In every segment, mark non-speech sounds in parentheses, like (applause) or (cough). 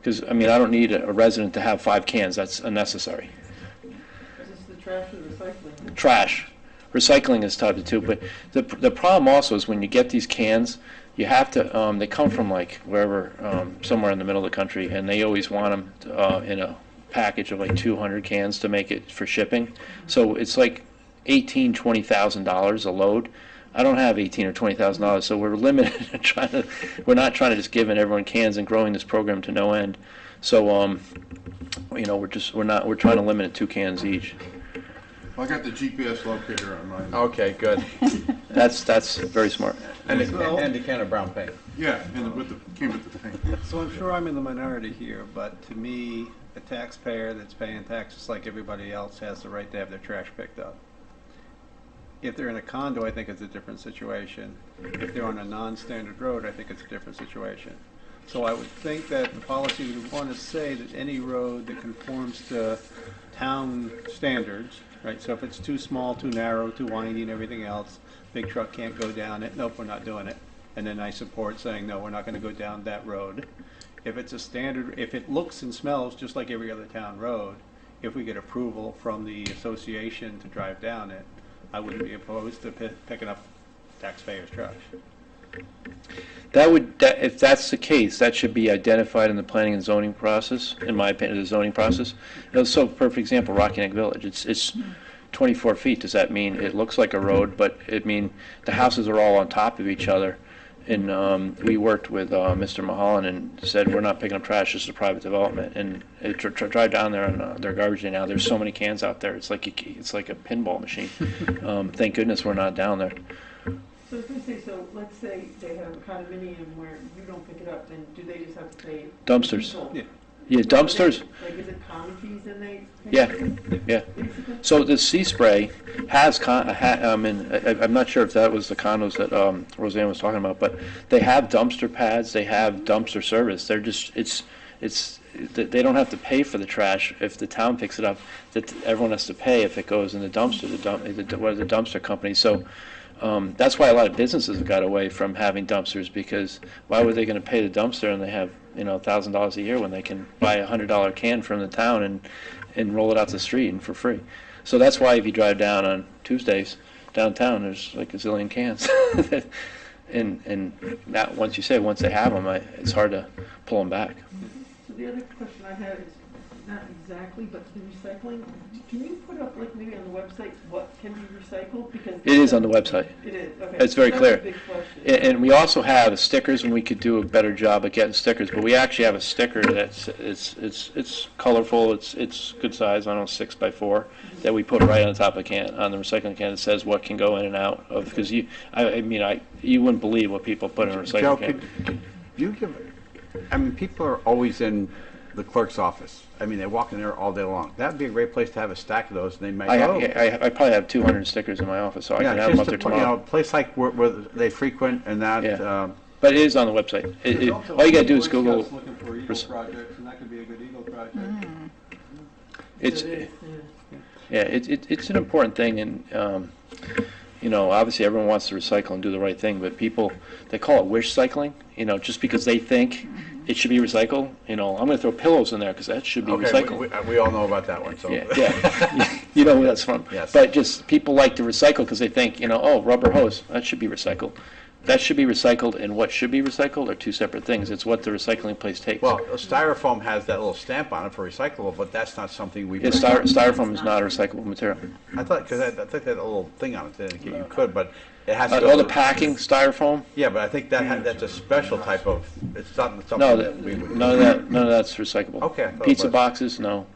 Because, I mean, I don't need a resident to have five cans, that's unnecessary. Is this the trash and recycling? Trash, recycling is tied to two, but the, the problem also is when you get these cans, you have to, um, they come from like wherever, um, somewhere in the middle of the country, and they always want them, uh, in a package of like two hundred cans to make it for shipping. So it's like eighteen, twenty thousand dollars a load. I don't have eighteen or twenty thousand dollars, so we're (laughs) limited in trying to, we're not trying to just give in everyone cans and growing this program to no end. So, um, you know, we're just, we're not, we're trying to limit it to two cans each. I got the GPS locator on mine. Oh. Okay, good. That's, that's very smart. And So- a, and a can of brown paint. Yeah, and it with the, came with the thing. So I'm sure I'm in the minority here, but to me, a taxpayer that's paying taxes like everybody else has the right to have their trash picked up. If they're in a condo, I think it's a different situation. If they're on a non-standard road, I think it's a different situation. So I would think that the policy would want to say that any road that conforms to town standards, right? So if it's too small, too narrow, too windy and everything else, big truck can't go down it, nope, we're not doing it. And then I support saying, no, we're not going to go down that road. If it's a standard, if it looks and smells just like every other town road, if we get approval from the association to drive down it, I wouldn't be opposed to pi- picking up taxpayers' trash. That would, that, if that's the case, that should be identified in the planning and zoning process, in my opinion, the zoning process. You know, So, perfect example, Rocky Neck Village, it's, it's 24 feet, does that mean it looks like a road, but it mean, the houses are all on top of each other? And, um, we worked with, uh, Mr. Mahalan and said, we're not picking up trash, this is private development, and it, dr- dr- drive down there on, uh, their garbage day now, there's so many cans out there, it's like, you c- it's like a pinball machine. Um, thank goodness we're not down there. So if they say, so let's say they have a condominium where you don't pick it up, then do they just have to pay? Dumpsters. diesel? Yeah. Yeah, dumpsters, Like, is it common fees and they? pay? yeah, yeah. Basically? So the sea spray has con, uh, ha, I mean, I, I'm not sure if that was the condos that, um, Roseanne was talking about, but they have dumpster pads, they have dumpster service, they're just, it's, it's, they, they don't have to pay for the trash if the town picks it up, that everyone has to pay if it goes in the dumpster, the dump, the, what the dumpster company, so, um, that's why a lot of businesses have got away from having dumpsters, because why were they gonna pay the dumpster and they have, you know, a thousand dollars a year when they can buy a hundred dollar can from the town and, and roll it out the street and for free? So that's why if you drive down on Tuesdays downtown, there's like a zillion cans. (laughs) and and that once you say once they have them, I, it's hard to pull them back. So the other question I have is, not exactly, but the recycling, can you put up like maybe on the website what can be recycled? Because. It is on the website. It is, okay. It's very That's clear. a big question. And, and we also have stickers, and we could do a better job at getting stickers. But we actually have a sticker that's it's it's it's colorful. It's it's good size. I don't know, six by four that we put right on top of can on the recycling can that says what can go in and out of. Because you, I, I mean, I you wouldn't believe what people put in a recycling Joe, can. could, could you give, I mean, people are always in the clerk's office. I mean, they walk in there all day long. That'd be a great place to have a stack of those, and they might, I, oh. have, I, I probably have 200 stickers in my office, so I Yeah, can have them up just a there pla- you know, tomorrow. a place like where, where they frequent and that, Yeah. um, But it is on the website. It, it, all you gotta do is Google. Looking for Eagle res- projects, and that could be a good Eagle project. It's It is, yeah. yeah, it, it, it's an important thing, and um, you know, obviously everyone wants to recycle and do the right thing, but people they call it wish cycling. You know, just because they think it should be recycled. You know, I'm gonna throw pillows in there because that should be okay, recycled. we- uh, we, we all know about that one, so. Yeah, yeah. (laughs) you know where that's from. Yes. But just, people like to recycle because they think, you know, oh, rubber hose, that should be recycled. That should be recycled and what should be recycled are two separate things. It's what the recycling place takes. (laughs) Well, styrofoam has that little stamp on it for recyclable, but that's not something we. Yeah, styro- styrofoam is not a recyclable material. I thought, because I, I think that little thing on it, didn't indicate you could, but it has to Uh, go. All the to- packing, styrofoam, Yeah, but I think that, ha- that's a special type of, it's not something no, that that- we would. none of that, none of that's recyclable. Okay, I thought it Pizza was. boxes, no,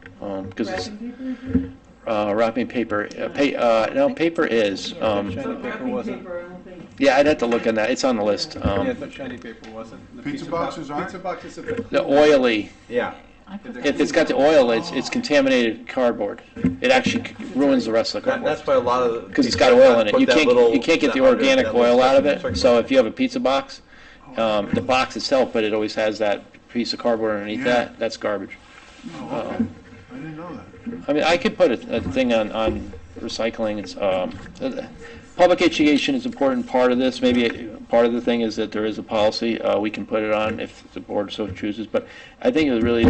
because it's, Wrapping paper? uh, wrapping paper, uh, pa- uh, no, paper is, um, Shiny So paper wrapping wasn't. paper, I don't think. yeah, I'd have to look on that, it's on the list. Yeah, Um, but shiny paper wasn't. The Pizza bo- boxes aren't? Pizza boxes have been. The oily, Yeah, If it's got the oil, it's, it's contaminated cardboard. It actually ruins the rest of the that- cardboard. that's why a lot of. Because it's got oil in it. You can't, you can't get the organic oil out of it. So if you have a pizza box, um, the box itself, but it always has that piece of cardboard underneath Yeah. that, that's garbage. Oh, okay. I didn't know that. I mean, I could put a, a thing on, on recycling, it's, um, public education is an important part of this. Maybe uh, part of the thing is that there is a policy. Uh, We can put it on if the board so chooses, but I think it would really